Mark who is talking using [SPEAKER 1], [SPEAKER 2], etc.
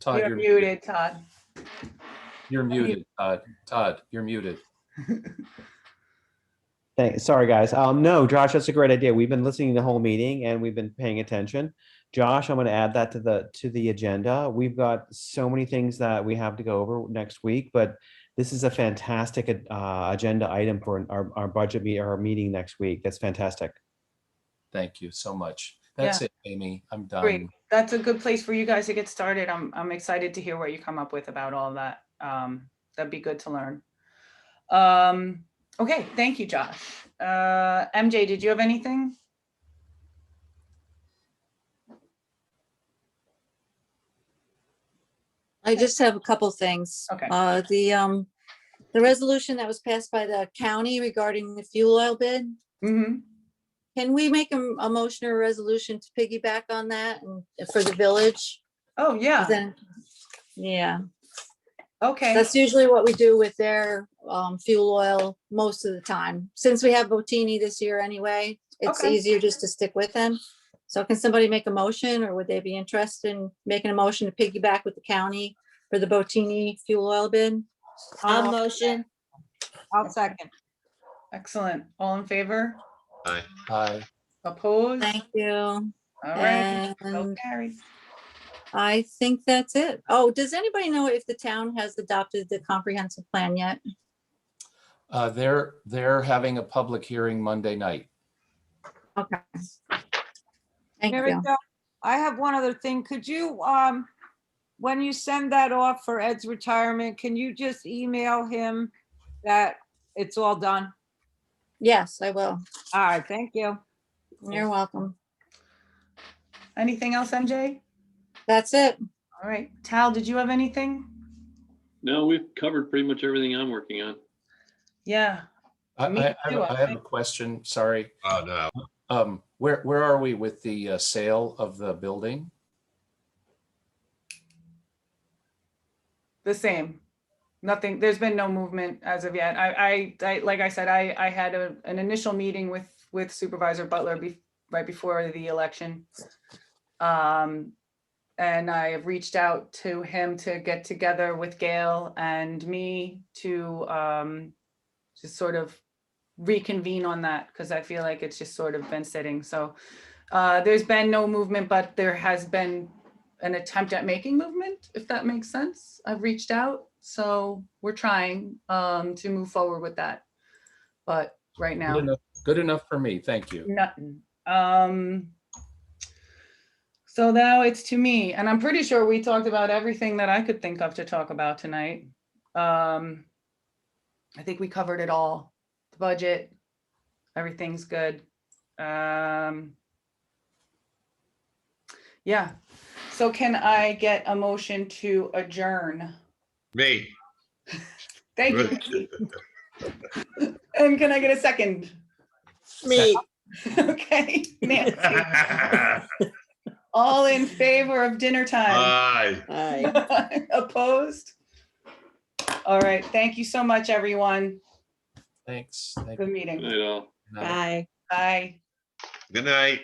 [SPEAKER 1] Todd,
[SPEAKER 2] You're muted, Todd.
[SPEAKER 1] You're muted, Todd. Todd, you're muted.
[SPEAKER 3] Thank, sorry, guys. Um, no, Josh, that's a great idea. We've been listening the whole meeting and we've been paying attention. Josh, I'm gonna add that to the, to the agenda. We've got so many things that we have to go over next week, but this is a fantastic, uh, agenda item for our, our budget, meet- our meeting next week. That's fantastic.
[SPEAKER 1] Thank you so much. That's it, Amy. I'm
[SPEAKER 2] Great.
[SPEAKER 1] done.
[SPEAKER 2] That's a good place for you guys to get started. I'm, I'm excited to hear what you come up with about all that. Um, that'd be good to learn. Um, okay, thank you, Josh. Uh, MJ, did you have anything?
[SPEAKER 4] I just have a couple things.
[SPEAKER 2] Okay.
[SPEAKER 4] Uh, the, um, the resolution that was passed by the county regarding the fuel oil bid,
[SPEAKER 2] Mm-hmm.
[SPEAKER 4] can we make a, a motion or a resolution to piggyback on that and for the village?
[SPEAKER 2] Oh, yeah.
[SPEAKER 4] Then, yeah,
[SPEAKER 2] Okay.
[SPEAKER 4] that's usually what we do with their, um, fuel oil most of the time. Since we have Botini this year anyway, it's
[SPEAKER 2] Okay.
[SPEAKER 4] easier just to stick with them. So can somebody make a motion or would they be interested in making a motion to piggyback with the county for the Botini fuel oil bid?
[SPEAKER 5] I'll motion. I'll second.
[SPEAKER 2] Excellent. All in favor?
[SPEAKER 1] Hi,
[SPEAKER 2] Opposed?
[SPEAKER 4] Thank you.
[SPEAKER 2] All right. So
[SPEAKER 4] And
[SPEAKER 2] carried.
[SPEAKER 4] I think that's it. Oh, does anybody know if the town has adopted the comprehensive plan yet?
[SPEAKER 1] Uh, they're, they're having a public hearing Monday night.
[SPEAKER 4] Okay. Thank
[SPEAKER 5] Mary
[SPEAKER 4] you.
[SPEAKER 5] Jo, I have one other thing. Could you, um, when you send that off for Ed's retirement, can you just email him that it's all done?
[SPEAKER 4] Yes, I will.
[SPEAKER 5] All right, thank you.
[SPEAKER 4] You're welcome.
[SPEAKER 2] Anything else, MJ?
[SPEAKER 4] That's it.
[SPEAKER 2] All right. Tal, did you have anything?
[SPEAKER 6] No, we've covered pretty much everything I'm working on.
[SPEAKER 2] Yeah.
[SPEAKER 1] I,
[SPEAKER 2] Me
[SPEAKER 1] I- I,
[SPEAKER 2] too, I
[SPEAKER 1] I have a
[SPEAKER 2] think.
[SPEAKER 1] question, sorry.
[SPEAKER 7] Oh, no.
[SPEAKER 1] Um, where, where are we with the uh, sale of the building?
[SPEAKER 2] The same. Nothing, there's been no movement as of yet. I, I, I, like I said, I, I had a, an initial meeting with, with Supervisor Butler be, right before the election. Um, and I have reached out to him to get together with Gail and me to, um, just sort of reconvene on that, because I feel like it's just sort of been sitting, so. Uh, there's been no movement, but there has been an attempt at making movement, if that makes sense. I've reached out, so we're trying um to move forward with that. But right
[SPEAKER 1] Good
[SPEAKER 2] now,
[SPEAKER 1] enough Good enough for me, thank you.
[SPEAKER 2] nothing. Um so now it's to me, and I'm pretty sure we talked about everything that I could think of to talk about tonight. Um I think we covered it all. The budget, everything's good. Um Yeah, so can I get a motion to adjourn?
[SPEAKER 7] Me.
[SPEAKER 2] Thank you. Nancy. And can I get a second?
[SPEAKER 1] Me.
[SPEAKER 2] Okay, Nancy.
[SPEAKER 7] Aye.
[SPEAKER 2] All in favor of dinner time? Opposed? All right, thank you so much, everyone.
[SPEAKER 1] Thanks. Thank
[SPEAKER 2] Good
[SPEAKER 1] you.
[SPEAKER 2] meeting.
[SPEAKER 6] You know.
[SPEAKER 1] Good night.
[SPEAKER 2] Bye.
[SPEAKER 7] Good night.